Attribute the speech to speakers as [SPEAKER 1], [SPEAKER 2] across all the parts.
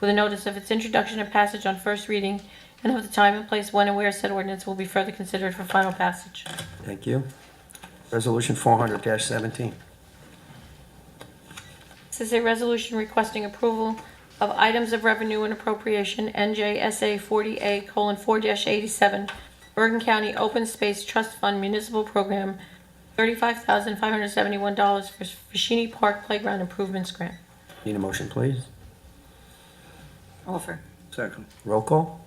[SPEAKER 1] with a notice of its introduction and passage on first reading, and of the time and place when and where said ordinance will be further considered for final passage.
[SPEAKER 2] Thank you. Resolution 400-17.
[SPEAKER 1] This is a resolution requesting approval of items of revenue and appropriation, NJSA 40A:4-87, Bergen County Open Space Trust Fund Municipal Program, $35,571 for Fashini Park Playground Improvements Grant.
[SPEAKER 2] Need a motion, please?
[SPEAKER 3] Offer.
[SPEAKER 4] Second.
[SPEAKER 2] Roll call?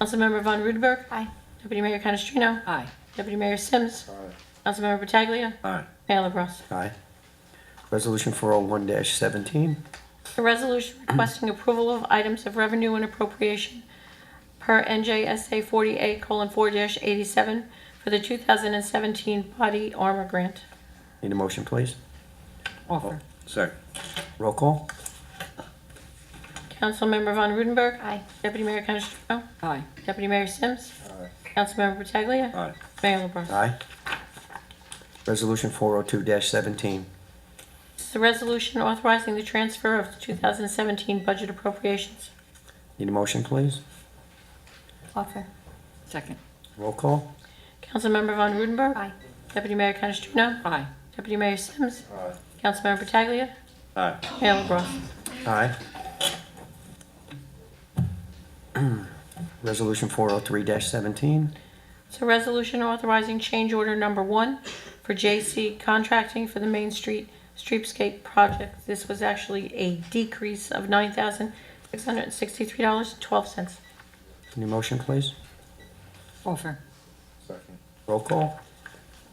[SPEAKER 1] Councilmember Von Rudenberg.
[SPEAKER 3] Aye.
[SPEAKER 1] Deputy Mayor Canestrino.
[SPEAKER 3] Aye.
[SPEAKER 1] Deputy Mayor Sims. Councilmember Pataglia.
[SPEAKER 4] Aye.
[SPEAKER 1] Mayor LaBrus.
[SPEAKER 2] Aye. Resolution 401-17.
[SPEAKER 1] A resolution requesting approval of items of revenue and appropriation per NJSA 48:4-87 for the 2017 Body Armor Grant.
[SPEAKER 2] Need a motion, please?
[SPEAKER 3] Offer.
[SPEAKER 4] Second.
[SPEAKER 2] Roll call?
[SPEAKER 1] Councilmember Von Rudenberg.
[SPEAKER 3] Aye.
[SPEAKER 1] Deputy Mayor Canestrino.
[SPEAKER 3] Aye.
[SPEAKER 1] Deputy Mayor Sims. Councilmember Pataglia.
[SPEAKER 4] Aye.
[SPEAKER 1] Mayor LaBrus.
[SPEAKER 2] Aye. Resolution 402-17.
[SPEAKER 1] This is a resolution authorizing the transfer of the 2017 budget appropriations.
[SPEAKER 2] Need a motion, please?
[SPEAKER 3] Offer. Second.
[SPEAKER 2] Roll call?
[SPEAKER 1] Councilmember Von Rudenberg.
[SPEAKER 3] Aye.
[SPEAKER 1] Deputy Mayor Canestrino.
[SPEAKER 3] Aye.
[SPEAKER 1] Deputy Mayor Sims. Councilmember Pataglia.
[SPEAKER 4] Aye.
[SPEAKER 1] Mayor LaBrus.
[SPEAKER 2] Aye. Resolution 403-17.
[SPEAKER 1] It's a resolution authorizing change order number one for J.C. Contracting for the Main Street Streetscape Project. This was actually a decrease of $9,663.12.
[SPEAKER 2] Need a motion, please?
[SPEAKER 3] Offer.
[SPEAKER 4] Second.
[SPEAKER 2] Roll call?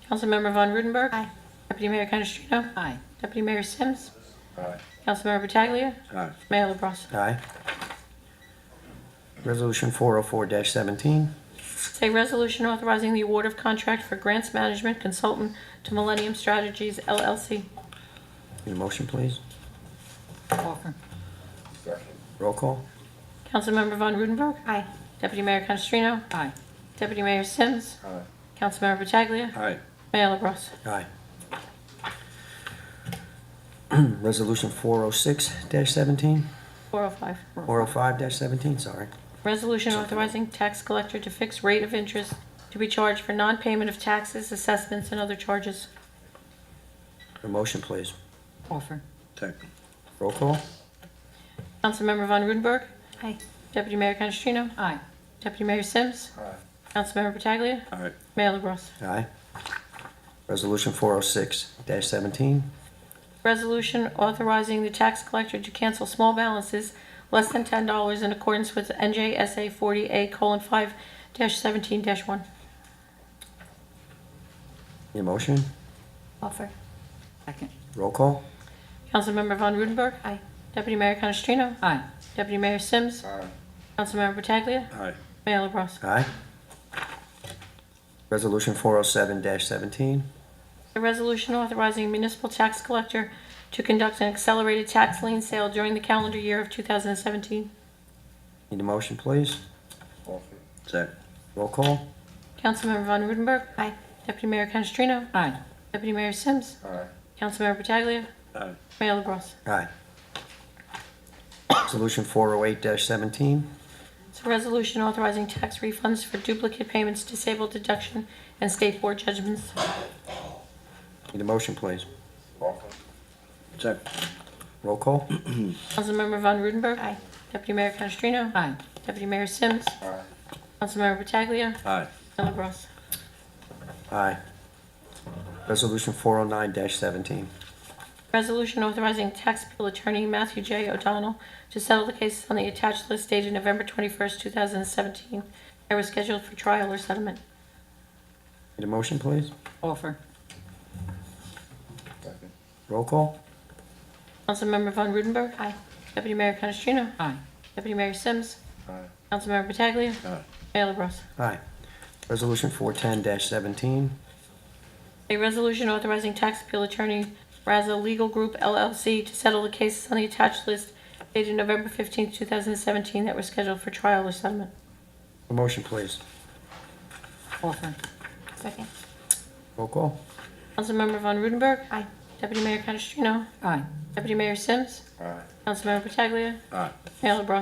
[SPEAKER 1] Councilmember Von Rudenberg.
[SPEAKER 3] Aye.
[SPEAKER 1] Deputy Mayor Canestrino.
[SPEAKER 3] Aye.
[SPEAKER 1] Deputy Mayor Sims.
[SPEAKER 4] Aye.
[SPEAKER 1] Councilmember Pataglia.
[SPEAKER 4] Aye.
[SPEAKER 1] Mayor LaBrus.
[SPEAKER 2] Aye. Resolution 404-17.
[SPEAKER 1] It's a resolution authorizing the award of contract for grants management consultant to Millennium Strategies LLC.
[SPEAKER 2] Need a motion, please?
[SPEAKER 3] Offer.
[SPEAKER 2] Roll call?
[SPEAKER 1] Councilmember Von Rudenberg.
[SPEAKER 3] Aye.
[SPEAKER 1] Deputy Mayor Canestrino.
[SPEAKER 3] Aye.
[SPEAKER 1] Deputy Mayor Sims.
[SPEAKER 4] Aye.
[SPEAKER 1] Councilmember Pataglia.
[SPEAKER 4] Aye.
[SPEAKER 1] Mayor LaBrus.
[SPEAKER 2] Aye. Resolution 406-17,
[SPEAKER 1] 405.
[SPEAKER 2] 405-17, sorry.
[SPEAKER 1] Resolution authorizing tax collector to fix rate of interest to be charged for non-payment of taxes, assessments, and other charges.
[SPEAKER 2] A motion, please.
[SPEAKER 3] Offer.
[SPEAKER 4] Second.
[SPEAKER 2] Roll call?
[SPEAKER 1] Councilmember Von Rudenberg.
[SPEAKER 3] Aye.
[SPEAKER 1] Deputy Mayor Canestrino.
[SPEAKER 3] Aye.
[SPEAKER 1] Deputy Mayor Sims.
[SPEAKER 4] Aye.
[SPEAKER 1] Councilmember Pataglia.
[SPEAKER 4] Aye.
[SPEAKER 1] Mayor LaBrus.
[SPEAKER 2] Aye. Resolution 406-17,
[SPEAKER 1] Resolution authorizing the tax collector to cancel small balances less than $10 in accordance with NJSA 40A:5-17-1.
[SPEAKER 2] need a motion?
[SPEAKER 3] Offer. Second.
[SPEAKER 2] Roll call?
[SPEAKER 1] Councilmember Von Rudenberg.
[SPEAKER 3] Aye.
[SPEAKER 1] Deputy Mayor Canestrino.
[SPEAKER 3] Aye.
[SPEAKER 1] Deputy Mayor Sims.
[SPEAKER 4] Aye.
[SPEAKER 1] Councilmember Pataglia.
[SPEAKER 4] Aye.
[SPEAKER 1] Mayor LaBrus.
[SPEAKER 2] Aye. Resolution 407-17,
[SPEAKER 1] A resolution authorizing municipal tax collector to conduct an accelerated tax lien sale during the calendar year of 2017.
[SPEAKER 2] need a motion, please?
[SPEAKER 4] Second.
[SPEAKER 2] Roll call?
[SPEAKER 1] Councilmember Von Rudenberg.
[SPEAKER 3] Aye.
[SPEAKER 1] Deputy Mayor Canestrino.
[SPEAKER 3] Aye.
[SPEAKER 1] Deputy Mayor Sims.
[SPEAKER 4] Aye.
[SPEAKER 1] Councilmember Pataglia.
[SPEAKER 4] Aye.
[SPEAKER 1] Mayor LaBrus.
[SPEAKER 2] Aye. Resolution 408-17,
[SPEAKER 1] It's a resolution authorizing tax refunds for duplicate payments, disabled deduction, and state board judgments.
[SPEAKER 2] need a motion, please?
[SPEAKER 4] Second.
[SPEAKER 2] Roll call?
[SPEAKER 1] Councilmember Von Rudenberg.
[SPEAKER 3] Aye.
[SPEAKER 1] Deputy Mayor Canestrino.
[SPEAKER 3] Aye.
[SPEAKER 1] Deputy Mayor Sims. Councilmember Pataglia.
[SPEAKER 4] Aye.
[SPEAKER 1] Mayor LaBrus.
[SPEAKER 2] Aye. Resolution 409-17.
[SPEAKER 1] Resolution authorizing tax appeal attorney Matthew J. O'Donnell to settle the cases on the attached list dated November 21st, 2017. They were scheduled for trial or settlement.
[SPEAKER 2] Need a motion, please?
[SPEAKER 3] Offer.
[SPEAKER 4] Second.
[SPEAKER 2] Roll call?
[SPEAKER 1] Councilmember Von Rudenberg.
[SPEAKER 3] Aye.
[SPEAKER 1] Deputy Mayor Canestrino.
[SPEAKER 3] Aye.
[SPEAKER 1] Deputy Mayor Sims.
[SPEAKER 4] Aye.
[SPEAKER 1] Councilmember Pataglia.
[SPEAKER 4] Aye.
[SPEAKER 1] Mayor LaBrus.
[SPEAKER 2] Aye. Resolution 410-17.
[SPEAKER 1] A resolution authorizing tax appeal attorney Raza Legal Group LLC to settle the cases on the attached list dated November 15th, 2017 that were scheduled for trial or settlement.
[SPEAKER 2] A motion, please.
[SPEAKER 3] Offer.
[SPEAKER 1] Second.
[SPEAKER 2] Roll call?
[SPEAKER 1] Councilmember Von Rudenberg.
[SPEAKER 3] Aye.
[SPEAKER 1] Deputy Mayor Canestrino?
[SPEAKER 3] Aye.
[SPEAKER 1] Deputy Mayor Sims?
[SPEAKER 4] Aye.
[SPEAKER 1] Councilmember Pataglia?
[SPEAKER 4] Aye.
[SPEAKER 1] Mayor LaBrus?